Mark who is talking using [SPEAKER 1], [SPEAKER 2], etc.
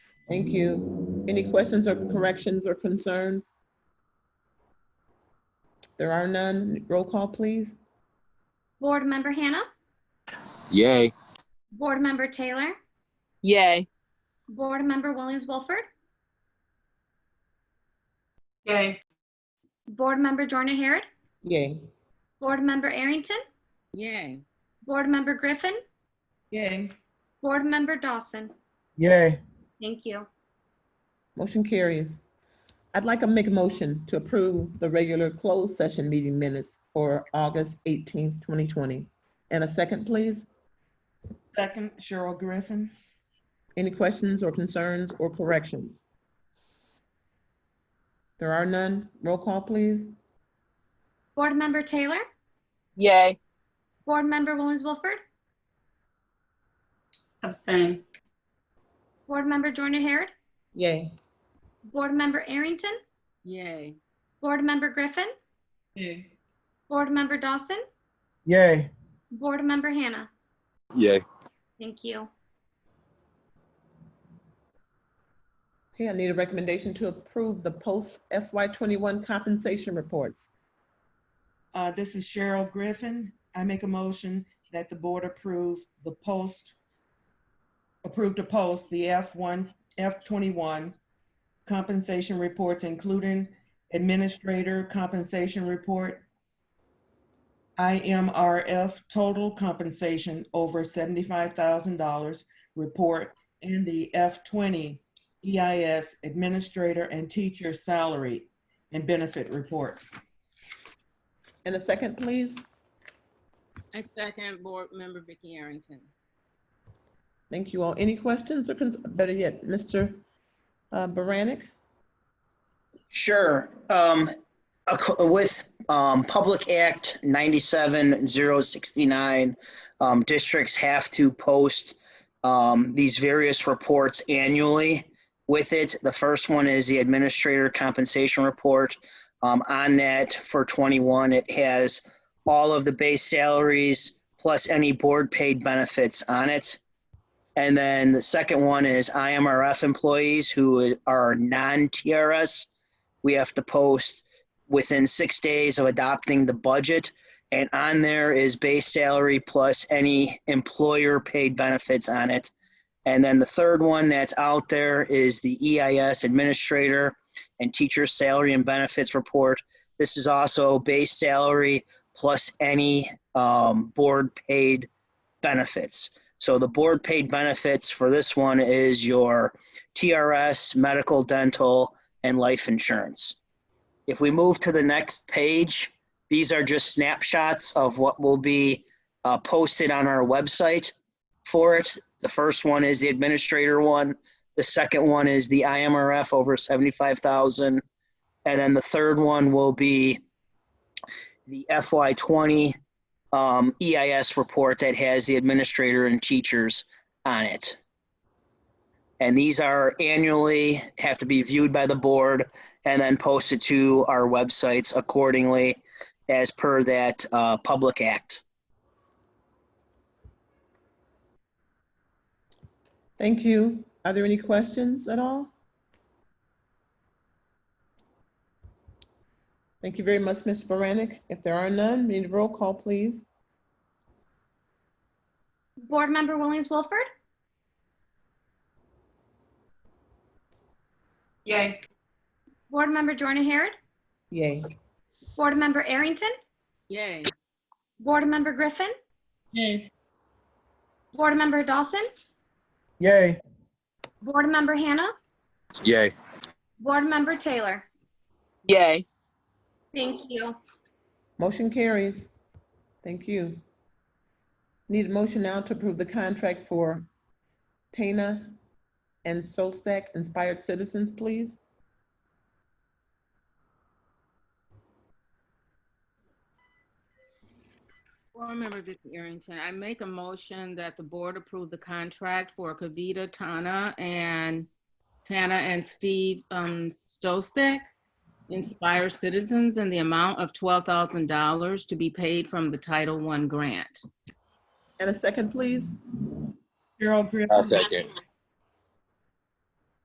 [SPEAKER 1] Thank you. Any questions or corrections or concerns? There are none. Roll call, please.
[SPEAKER 2] Board Member Hannah,
[SPEAKER 3] Yay.
[SPEAKER 2] Board Member Taylor,
[SPEAKER 4] Yay.
[SPEAKER 2] Board Member Williams Wilford,
[SPEAKER 5] Yay.
[SPEAKER 2] Board Member Jordan Harret,
[SPEAKER 1] Yay.
[SPEAKER 2] Board Member Arrington,
[SPEAKER 4] Yay.
[SPEAKER 2] Board Member Griffin,
[SPEAKER 5] Yay.
[SPEAKER 2] Board Member Dawson.
[SPEAKER 6] Yay.
[SPEAKER 2] Thank you.
[SPEAKER 1] Motion carries. I'd like to make a motion to approve the regular closed session meeting minutes for August 18th, 2020. And a second, please.
[SPEAKER 5] Second, Cheryl Griffin.
[SPEAKER 1] Any questions or concerns or corrections? There are none. Roll call, please.
[SPEAKER 2] Board Member Taylor,
[SPEAKER 4] Yay.
[SPEAKER 2] Board Member Williams Wilford,
[SPEAKER 5] Abstain.
[SPEAKER 2] Board Member Jordan Harret,
[SPEAKER 1] Yay.
[SPEAKER 2] Board Member Arrington,
[SPEAKER 4] Yay.
[SPEAKER 2] Board Member Griffin,
[SPEAKER 5] Yay.
[SPEAKER 2] Board Member Dawson,
[SPEAKER 6] Yay.
[SPEAKER 2] Board Member Hannah.
[SPEAKER 3] Yay.
[SPEAKER 2] Thank you.
[SPEAKER 1] Okay, I need a recommendation to approve the post FY twenty-one compensation reports.
[SPEAKER 5] Uh, this is Cheryl Griffin. I make a motion that the board approve the post, approve to post the F1, F21 compensation reports, including administrator compensation report, IMRF total compensation over $75,000 report, and the F20 EIS administrator and teacher salary and benefit report.
[SPEAKER 1] And a second, please.
[SPEAKER 4] I second Board Member Vicky Arrington.
[SPEAKER 1] Thank you all. Any questions or, cons- better yet, Mr. uh, Baranik?
[SPEAKER 7] Sure. Um, ac- With um, Public Act 97069, um, districts have to post um, these various reports annually with it. The first one is the Administrator Compensation Report. Um, On that, for 21, it has all of the base salaries plus any board-paid benefits on it. And then the second one is IMRF employees who are non-TRS we have to post within six days of adopting the budget. And on there is base salary plus any employer paid benefits on it. And then the third one that's out there is the EIS administrator and teacher salary and benefits report. This is also base salary plus any um, board paid benefits. So the board paid benefits for this one is your TRS, medical, dental, and life insurance. If we move to the next page, these are just snapshots of what will be uh, posted on our website for it. The first one is the administrator one. The second one is the IMRF over 75,000. And then the third one will be the FY20 um, EIS report that has the administrator and teachers on it. And these are annually, have to be viewed by the board and then posted to our websites accordingly as per that uh, public act.
[SPEAKER 1] Thank you. Are there any questions at all? Thank you very much, Mr. Baranik. If there are none, we need a roll call, please.
[SPEAKER 2] Board Member Williams Wilford,
[SPEAKER 5] Yay.
[SPEAKER 2] Board Member Jordan Harret,
[SPEAKER 1] Yay.
[SPEAKER 2] Board Member Arrington,
[SPEAKER 4] Yay.
[SPEAKER 2] Board Member Griffin,
[SPEAKER 5] Yay.
[SPEAKER 2] Board Member Dawson,
[SPEAKER 6] Yay.
[SPEAKER 2] Board Member Hannah,
[SPEAKER 3] Yay.
[SPEAKER 2] Board Member Taylor.
[SPEAKER 4] Yay.
[SPEAKER 2] Thank you.
[SPEAKER 1] Motion carries. Thank you. Need a motion now to approve the contract for Tana and Solstack Inspired Citizens, please.
[SPEAKER 4] Board Member Vicky Arrington, I make a motion that the board approve the contract for Kavita Tana and Tana and Steve um, Stostek, Inspire Citizens, in the amount of $12,000 to be paid from the Title I grant.
[SPEAKER 1] And a second, please.
[SPEAKER 5] Cheryl
[SPEAKER 3] I'll
[SPEAKER 5] Griffin.
[SPEAKER 3] second.